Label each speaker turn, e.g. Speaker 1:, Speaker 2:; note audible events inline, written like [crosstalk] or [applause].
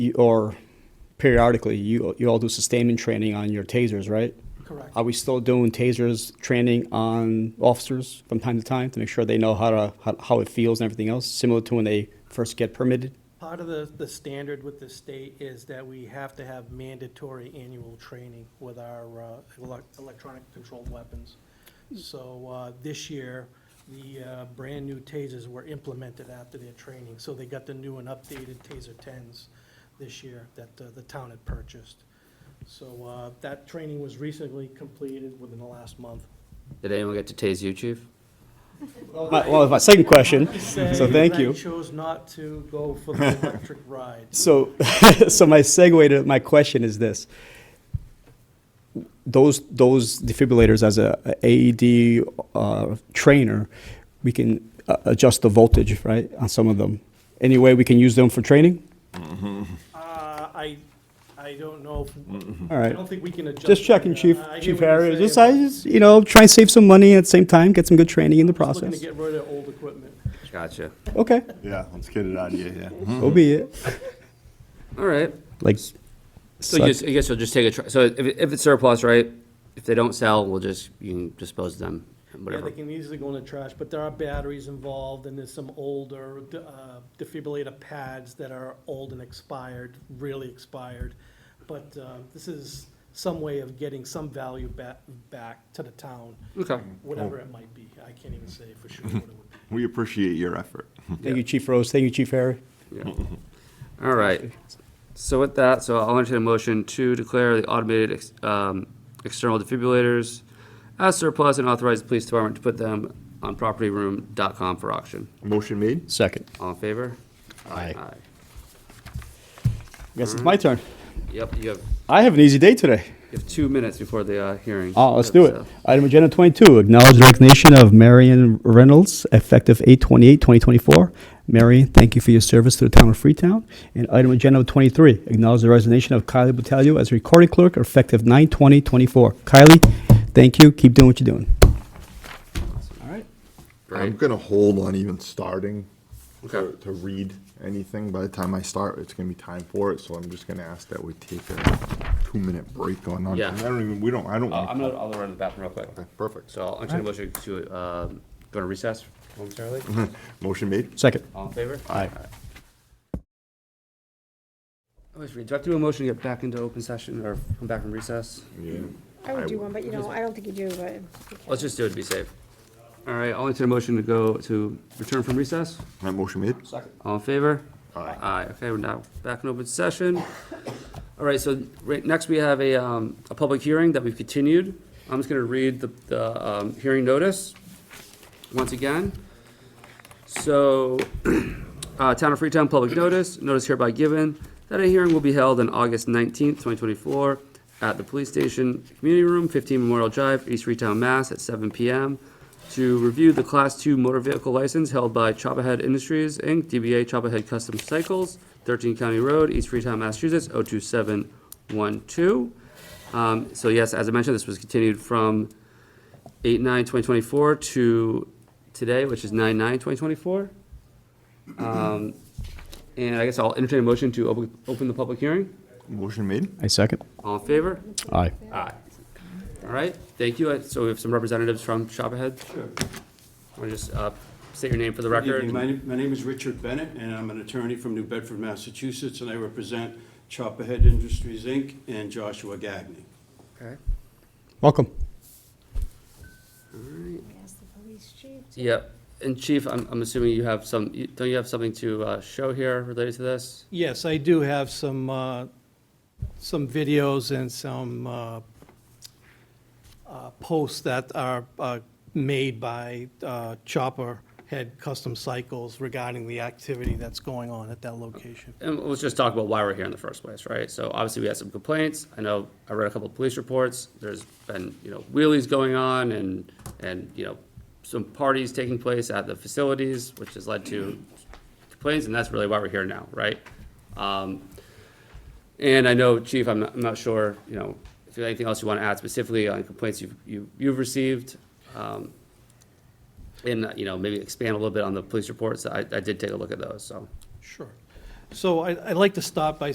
Speaker 1: you, or periodically, you, you all do sustainment training on your tasers, right?
Speaker 2: Correct.
Speaker 1: Are we still doing tasers training on officers from time to time to make sure they know how to, how, how it feels and everything else, similar to when they first get permitted?
Speaker 2: Part of the, the standard with the state is that we have to have mandatory annual training with our uh, elec- electronic controlled weapons. So uh, this year, the uh, brand-new tasers were implemented after their training. So they got the new and updated Taser 10s this year that uh, the town had purchased. So uh, that training was recently completed within the last month.
Speaker 3: Did anyone get to tase you, chief?
Speaker 1: My- Well, my second [laughs] question, so thank
Speaker 2: I
Speaker 1: you.
Speaker 2: chose not to go for the electric ride.
Speaker 1: So, [laughs] so my segue to my question is this: those those defibrillators, as a, a AED uh, trainer, we can uh, adjust the voltage, right, on some of them. Any way we can use them for training?
Speaker 2: Uh, I, I don't know, if-
Speaker 1: All
Speaker 2: Mm-hmm. I
Speaker 1: right.
Speaker 2: don't think we can adjust.
Speaker 1: Just checking,
Speaker 2: that.
Speaker 1: Chief,
Speaker 2: I hear
Speaker 1: Chief
Speaker 2: what you're
Speaker 1: Harry. Just, I
Speaker 2: saying.
Speaker 1: just, you know, try and save some money at the same time, get some good training in the
Speaker 2: Just Looking to
Speaker 1: process.
Speaker 2: get rid of old equipment.
Speaker 3: Gotcha.
Speaker 1: Okay,
Speaker 4: Yeah, let's get it out of you, Hmm? yeah.
Speaker 1: so be it.
Speaker 3: All right.
Speaker 1: [laughs] Like,
Speaker 3: So
Speaker 1: suck-
Speaker 3: you just, I guess you'll just take a, tr- so if, it- if it's surplus, right? If they don't sell, we'll just, you can dispose of them, and
Speaker 2: Yeah, they
Speaker 3: whatever.
Speaker 2: can easily go in the trash, but there are batteries involved, and there's some older uh, defibrillator pads that are old and expired, really expired. But uh, this is some way of getting some value ba- back to the town,
Speaker 3: Okay.
Speaker 2: whatever it might be. I can't even say for sure what it would be.
Speaker 4: We appreciate your effort. Hmm.
Speaker 1: thank you, Chief Rose. Thank you, Chief Harry.
Speaker 3: Yeah. [laughs] All right. So with that, so I'll entertain a motion to declare the automated, ex- um, external defibrillators as surplus and authorize the police department to put them on propertyroom.com for auction.
Speaker 4: Motion made?
Speaker 1: Second.
Speaker 3: All in favor?
Speaker 1: Aye.
Speaker 3: Aye.
Speaker 1: Guess it's my turn.
Speaker 3: Yep, you have,
Speaker 1: I have an easy day today.
Speaker 3: you have two minutes before the, uh, hearing.
Speaker 1: Oh, let's do it.
Speaker 3: So-
Speaker 1: Item agenda twenty-two, acknowledge resignation of Marion Reynolds, effective 8 2024 Marion, thank you for your service to the town of Freetown. And item agenda twenty-three, acknowledge the resignation of Kylie Battaglio as recording clerk, effective 9 24 Kylie, thank you, keep doing what you're doing. All right.
Speaker 4: I'm
Speaker 3: Great.
Speaker 4: gonna hold on even starting to,
Speaker 3: Okay.
Speaker 4: to read anything. By the time I start, it's gonna be time for it, so I'm just gonna ask that we take a two-minute break on, on,
Speaker 3: Yeah.
Speaker 4: I don't even, we don't, I don't.
Speaker 3: Uh,
Speaker 4: wanna-
Speaker 3: I'm gonna, I'll run to the bathroom real quick.
Speaker 4: Okay, Perfect.
Speaker 3: So I'll entertain a motion to, um, go to recess momentarily.
Speaker 4: Motion made?
Speaker 1: Second.
Speaker 3: All in favor?
Speaker 4: Aye.
Speaker 3: I always forget, do I have to do a motion to get back into open session or come back from recess?
Speaker 4: Yeah.
Speaker 5: I would do one, but you know, I don't think you do, but.
Speaker 3: Let's just do it to be safe. All right, I'll entertain a motion to go, to return from recess.
Speaker 4: That motion made?
Speaker 3: All in favor?
Speaker 4: Aye.
Speaker 3: Aye, okay, we're now back in open session. All right, so right, next we have a, um, a public hearing that we've continued. I'm just gonna read the, the, um, hearing notice once again. So, uh, Town of Freetown Public Notice, notice hereby given that a hearing will be held on August nineteenth, twenty twenty-four at the Police Station Community Room, fifteen Memorial Drive, East Freetown, Mass, at seven PM to review the Class Two motor vehicle license held by Chopperhead Industries, Inc., DBA Chopperhead Custom Cycles, thirteen County Road, East Freetown, Massachusetts, oh two seven one two. Um, so yes, as I mentioned, this was continued from eight nine twenty twenty-four to today, which is nine nine twenty twenty-four. Um, and I guess I'll entertain a motion to open, open the public hearing.
Speaker 4: Motion made?
Speaker 1: I second.
Speaker 3: All in favor?
Speaker 1: Aye.
Speaker 3: Aye. All right, thank you. Uh, So we have some representatives from Shop Ahead. Sure. Want to just, uh, state your name for the
Speaker 6: Good
Speaker 3: record?
Speaker 6: evening. My name- My name is Richard Bennett, and I'm an attorney from New Bedford, Massachusetts, and I represent Chopperhead Industries, Inc., and Joshua Gagnon.
Speaker 3: Okay.
Speaker 1: Welcome.
Speaker 5: Ask the police chief.
Speaker 3: Yep, and Chief, I'm, I'm assuming you have some, you- don't you have something to, uh, show here related to this?
Speaker 2: Yes, I do have some, uh, some videos and some uh, uh, posts that are uh, made by uh, Chopper Head Custom Cycles regarding the activity that's going on at that location.
Speaker 3: And let's just talk about why we're here in the first place, right? So obviously, we had some complaints. I know, I read a couple of police reports. There's been, you know, wheelies going on and, and, you know, some parties taking place at the facilities, which has led to complaints, and that's really why we're here now, right? Um, And I know, Chief, I'm not, I'm not sure, you know, if there's anything else you want to add specifically on complaints you've, you- you've received. um, And, uh, you know, maybe expand a little bit on the police reports. I, I did take a look at those, so.
Speaker 2: Sure. So I- I'd like to start by